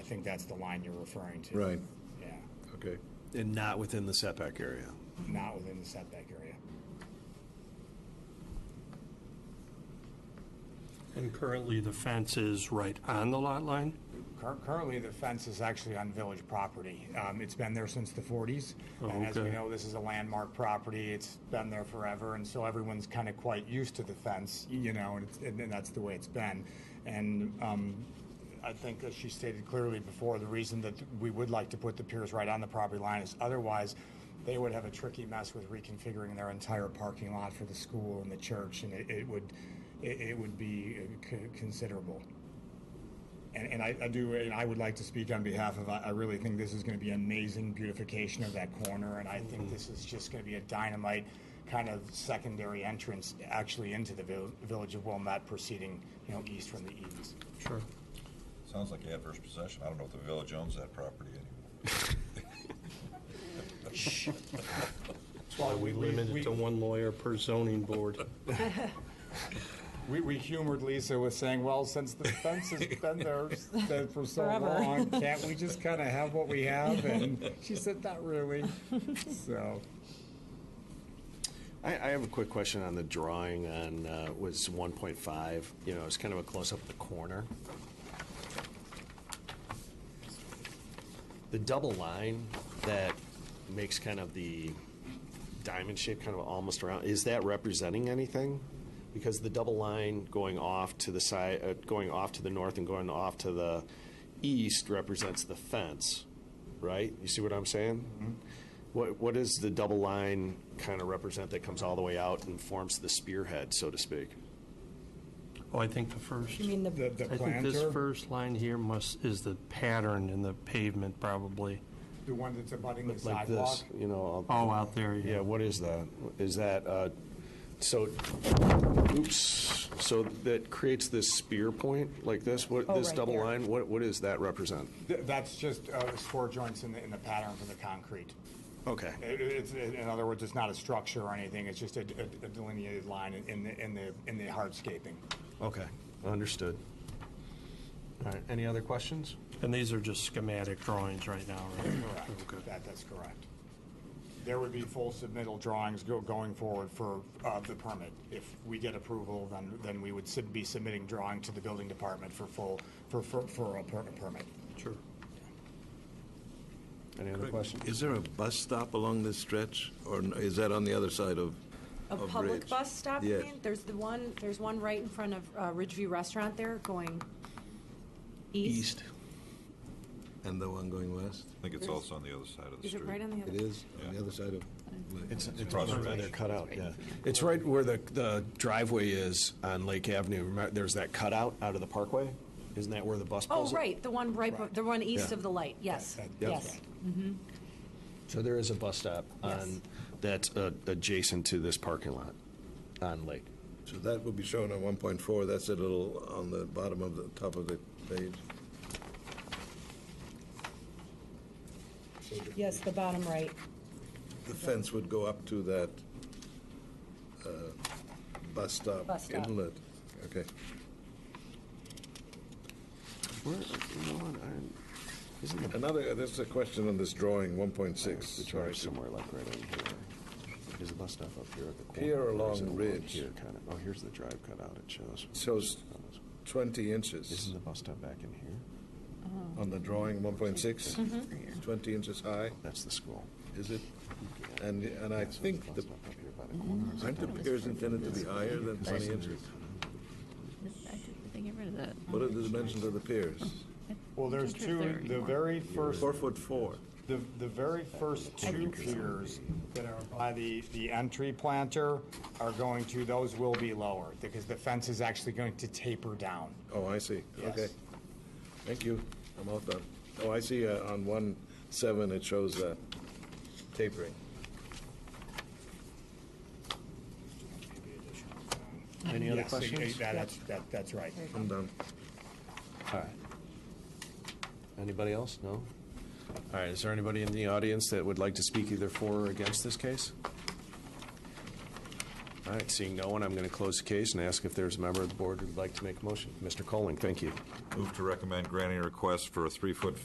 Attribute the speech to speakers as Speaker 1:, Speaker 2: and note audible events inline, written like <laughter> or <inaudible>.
Speaker 1: think that's the line you're referring to.
Speaker 2: Right,
Speaker 1: Yeah,
Speaker 2: okay.
Speaker 3: And not within the setback area.
Speaker 1: not within the setback area.
Speaker 4: And currently, the fence is right on the lot line?
Speaker 1: Cur- Currently, the fence is actually on village property. Um, It's been there since the 40s.
Speaker 4: Oh,
Speaker 1: And as we
Speaker 4: okay.
Speaker 1: know, this is a landmark property. It's been there forever, and so everyone's kind of quite used to the fence, y- you know, and it's- and and that's the way it's been. And um, I think, as she stated clearly before, the reason that we would like to put the piers right on the property line is otherwise, they would have a tricky mess with reconfiguring their entire parking lot for the school and the church, and it it would, it it would be uh, c- considerable. And, and I, I do, and I would like to speak on behalf of, I I really think this is gonna be amazing beautification of that corner, and I think this is just gonna be a dynamite kind of secondary entrance actually into the vil- village of Wilmette proceeding, you know, east from the eaves.
Speaker 4: Sure.
Speaker 5: Sounds like adverse possession. I don't know if the village owns that property anymore.
Speaker 4: Why we limit it to one lawyer per zoning board.
Speaker 1: We, we humored Lisa with saying, well, since the fence
Speaker 4: <laughs>
Speaker 1: has been there s- there for so
Speaker 6: Forever.
Speaker 1: long, can't we just kinda have what we have? And
Speaker 4: <laughs>
Speaker 1: she said, not really, so.
Speaker 3: I, I have a quick question on the drawing on, uh, was 1.5, you know, it's kind of a close-up of the corner. The double line that makes kind of the diamond shape kind of almost around, is that representing anything? Because the double line going off to the side, uh, going off to the north and going off to the east represents the fence, right? You see what I'm saying? What, what does the double line kind of represent that comes all the way out and forms the spearhead, so to speak?
Speaker 4: Oh, I think the first,
Speaker 6: You mean
Speaker 1: The,
Speaker 6: the,
Speaker 1: the
Speaker 4: I think this
Speaker 1: planter,
Speaker 4: first line here must, is the pattern in the pavement, probably.
Speaker 1: the one that's abutting the
Speaker 3: Like
Speaker 1: sidewalk.
Speaker 3: this, you know?
Speaker 4: Oh, out there,
Speaker 3: Yeah,
Speaker 4: yeah.
Speaker 3: what is that? Is that, uh, so, oops, so that creates this spear point like this? What,
Speaker 6: Oh,
Speaker 3: this
Speaker 6: right
Speaker 3: double
Speaker 6: there.
Speaker 3: line, what, what does that represent?
Speaker 1: Th- That's just uh, score joints in the, in the pattern for the concrete.
Speaker 3: Okay,
Speaker 1: It- it's- in other words, it's not a structure or anything, it's just a a- a delineated line in- in the, in the, in the hardscaping.
Speaker 3: okay, understood. All right, any other questions?
Speaker 4: And these are just schematic drawings right Oh, now, right?
Speaker 1: Correct, that, that's correct. There would be full submittal drawings go, going forward for, uh, the permit. If we get approval, then, then we would sub- be submitting drawing to the building department for full, for, for, for a per- a permit.
Speaker 4: Sure.
Speaker 3: Any other questions?
Speaker 2: Is there a bus stop along this stretch, or n- is that on the other side of?
Speaker 6: a
Speaker 2: of
Speaker 6: public
Speaker 2: Ridge?
Speaker 6: bus stop? you
Speaker 2: Yes.
Speaker 6: mean? There's the one, there's one right in front of uh, Ridgeview Restaurant there going east.
Speaker 2: East. And the one going west?
Speaker 5: I think it's also on the other side of the
Speaker 6: Is
Speaker 5: street.
Speaker 6: it right on the other?
Speaker 2: It is, on the other side of.
Speaker 3: It's, it's
Speaker 5: Across the
Speaker 3: where
Speaker 5: ridge.
Speaker 3: they're cut out, yeah.
Speaker 7: It's right where the, the driveway is on Lake Avenue. Remember,
Speaker 3: There's that cutout out of the parkway? Isn't that where the bus
Speaker 6: Oh,
Speaker 3: pulls? it?
Speaker 6: right, the one right, the one east
Speaker 3: Yeah.
Speaker 6: of the light, yes,
Speaker 1: That- that's
Speaker 6: yes.
Speaker 1: right.
Speaker 3: So there is a bus stop on,
Speaker 6: Yes.
Speaker 3: that's uh, adjacent to this parking lot on Lake.
Speaker 2: So that will be shown on one point four, that's a little on the bottom of the, top of the page.
Speaker 6: Yes, the bottom right.
Speaker 2: The fence would go up to that uh, bus stop
Speaker 6: Bus stop.
Speaker 2: inlet. Okay.
Speaker 3: Where, you know what, I'm- isn't the
Speaker 2: Another, uh, there's a question on this drawing, one point six.
Speaker 3: It's
Speaker 2: Sorry.
Speaker 3: right somewhere like right in here. Is the bus stop up here at the corner?
Speaker 2: Here
Speaker 3: or is
Speaker 2: along
Speaker 3: it
Speaker 2: Ridge.
Speaker 3: Here kind of, oh, here's the drive cutout it shows. Oh,
Speaker 2: Shows twenty inches
Speaker 3: Isn't the bus stop back in here?
Speaker 2: on the drawing, one point six.
Speaker 6: Mm-hmm.
Speaker 2: Twenty inches high,
Speaker 3: That's the school.
Speaker 2: is it? And, and I
Speaker 3: Yeah, so there's
Speaker 2: think
Speaker 3: bus
Speaker 2: the,
Speaker 3: stop up here by the corner. Is it
Speaker 2: aren't the
Speaker 3: down here?
Speaker 2: piers intended to be higher than twenty inches?
Speaker 8: I did, they get rid of that.
Speaker 2: What are the dimensions of the piers?
Speaker 1: Well, there's two, the very first
Speaker 2: Four foot four.
Speaker 1: The, the very first two piers that are by the, the entry planter are going to, those will be lower, because the fence is actually going to taper down.
Speaker 2: Oh, I see,
Speaker 1: Yes.
Speaker 2: okay. Thank you, I'm all done. Oh, I see uh, on one seven, it shows uh, tapering.
Speaker 3: Any other
Speaker 1: Yes,
Speaker 3: questions?
Speaker 1: that- That's, that- that's right.
Speaker 2: I'm done.
Speaker 3: All right. Anybody else? No? All right, is there anybody in the audience that would like to speak either for or against this case? All right, seeing no one, I'm going to close the case and ask if there's a member of the board who'd like to make a motion. Mr. Colling, thank you.
Speaker 5: Move to recommend granting a request for a three-foot